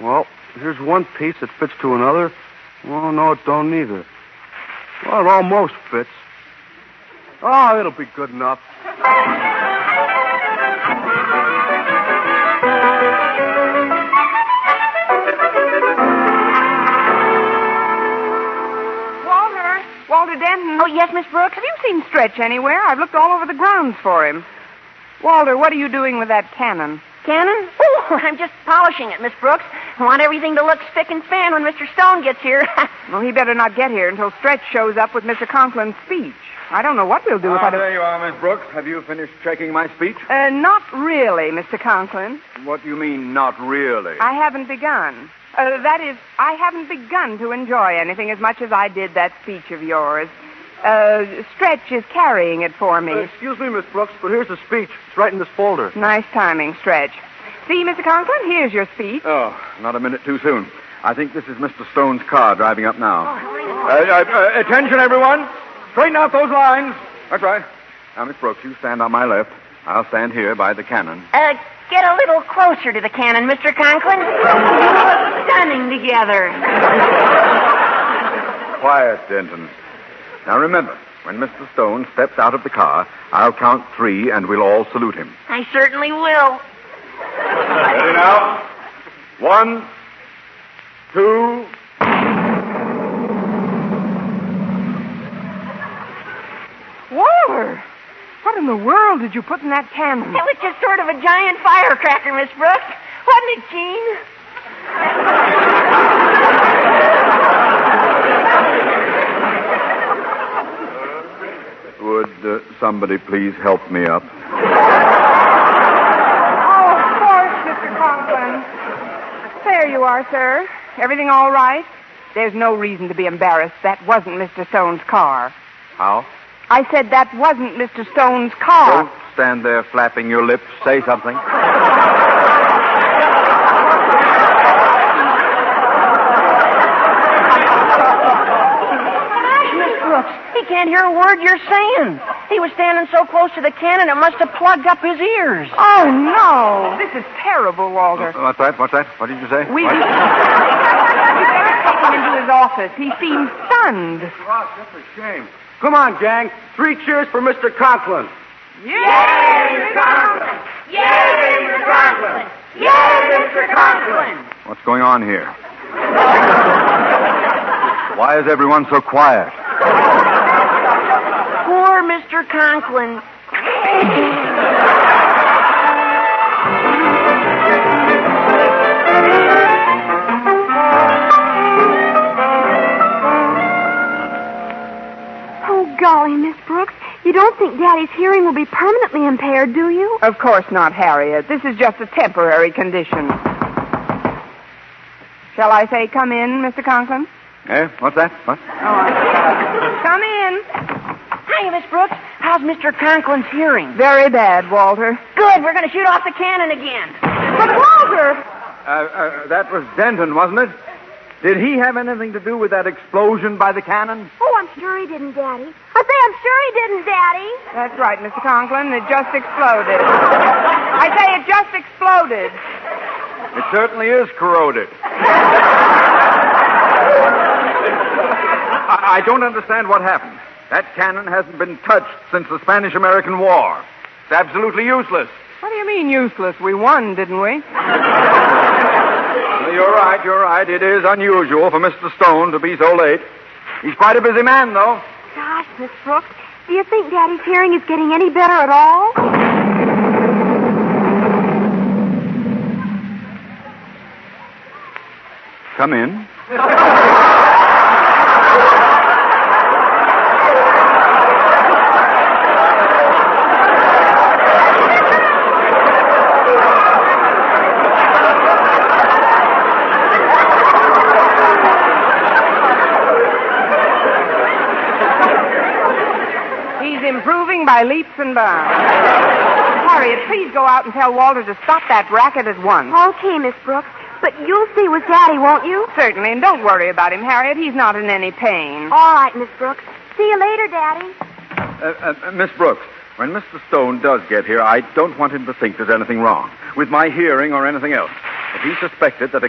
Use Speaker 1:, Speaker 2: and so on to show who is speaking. Speaker 1: Well, here's one piece that fits to another. Well, no, it don't either. Well, it almost fits. Oh, it'll be good enough.
Speaker 2: Walter! Walter Denton.
Speaker 3: Oh, yes, Miss Brooks?
Speaker 2: Have you seen Stretch anywhere? I've looked all over the grounds for him. Walter, what are you doing with that cannon?
Speaker 3: Cannon? Oh, I'm just polishing it, Miss Brooks. I want everything to look spick and span when Mr. Stone gets here. Uh,
Speaker 2: Well, he better not get here until Stretch shows up with Mr. Conklin's speech. I don't know what we'll do if I
Speaker 4: Ah,
Speaker 2: don't.
Speaker 1: Uh,
Speaker 4: there you are, Miss Brooks. Have you finished checking my speech?
Speaker 2: Uh, not really, Mr. Conklin.
Speaker 4: What do you mean, not really?
Speaker 2: I haven't begun. Uh, that is, I haven't begun to enjoy anything as much as I did that speech of yours. Uh, Stretch is carrying it for me.
Speaker 1: Uh, excuse me, Miss Brooks, but here's the speech. It's right in this folder.
Speaker 2: nice timing, Stretch. See, Mr. Conklin, here's your speech.
Speaker 4: Oh, not a minute too soon. I think this is Mr. Stone's car driving up now. Uh, uh, uh, attention, everyone. Straighten out those lines. That's right. Now, Miss Brooks, you stand on my left. I'll stand here by the cannon.
Speaker 3: Uh, get a little closer to the cannon, Mr. Conklin. You look stunning together.
Speaker 4: Quiet, Denton. Now, remember, when Mr. Stone steps out of the car, I'll count three and we'll all salute him.
Speaker 3: I certainly will.
Speaker 4: Ready now? One, two.
Speaker 2: Walter! What in the world did you put in that cannon?
Speaker 3: It was just sort of a giant firecracker, Miss Brooks. Wasn't it, Jean?
Speaker 4: Would uh, somebody please help me up?
Speaker 2: Oh, of course, Mr. Conklin. There you are, sir. Everything all right? There's no reason to be embarrassed. That wasn't Mr. Stone's car.
Speaker 4: How?
Speaker 2: I said that wasn't Mr. Stone's car.
Speaker 4: Don't stand there flapping your lips. Say something.
Speaker 3: Gosh, Miss Brooks, he can't hear a word you're saying. He was standing so close to the cannon, it must have plugged up his ears.
Speaker 2: Oh, no. This is terrible, Walter.
Speaker 4: What's that? What's that? What did you say?
Speaker 2: We.
Speaker 4: What?
Speaker 2: we better take him into his office. He seems stunned.
Speaker 1: Oh, that's a shame. Come on, gang. Three cheers for Mr. Conklin.
Speaker 4: What's going on here? Why is everyone so quiet?
Speaker 3: Poor Mr. Conklin.
Speaker 5: Oh, golly, Miss Brooks. You don't think Daddy's hearing will be permanently impaired, do you?
Speaker 2: Of course not, Harriet. This is just a temporary condition. Shall I say, come in, Mr. Conklin? Oh,
Speaker 4: Eh? What's that? What?
Speaker 2: Come in.
Speaker 3: Hi, Miss Brooks. How's Mr. Conklin's hearing?
Speaker 2: Very bad, Walter.
Speaker 3: Good. We're going to shoot off the cannon again.
Speaker 2: But, Walter!
Speaker 4: Uh, uh, that was Denton, wasn't it? Did he have anything to do with that explosion by the cannon?
Speaker 5: Oh, I'm sure he didn't, Daddy. I say I'm sure he didn't, Daddy.
Speaker 2: That's right, Mr. Conklin. It just exploded. I say it just exploded.
Speaker 4: It certainly is corroded. I, I don't understand what happened. That cannon hasn't been touched since the Spanish American War. It's absolutely useless.
Speaker 2: What do you mean useless? We won, didn't we?
Speaker 4: Uh, You're right, you're right. It is unusual for Mr. Stone to be so late. He's quite a busy man, though.
Speaker 5: Gosh, Miss Brooks, do you think Daddy's hearing is getting any better at all?
Speaker 4: Come in.
Speaker 2: He's improving by leaps and bounds. Harriet, please go out and tell Walter to stop that racket at once.
Speaker 5: Okay, Miss Brooks, but you'll see with Daddy, won't you?
Speaker 2: Certainly, and don't worry about him, Harriet. He's not in any pain.
Speaker 5: All right, Miss Brooks. See you later, Daddy.
Speaker 4: Uh, uh, Miss Brooks, when Mr. Stone does get here, I don't want him to think there's anything wrong with my hearing or anything else. If he suspected that a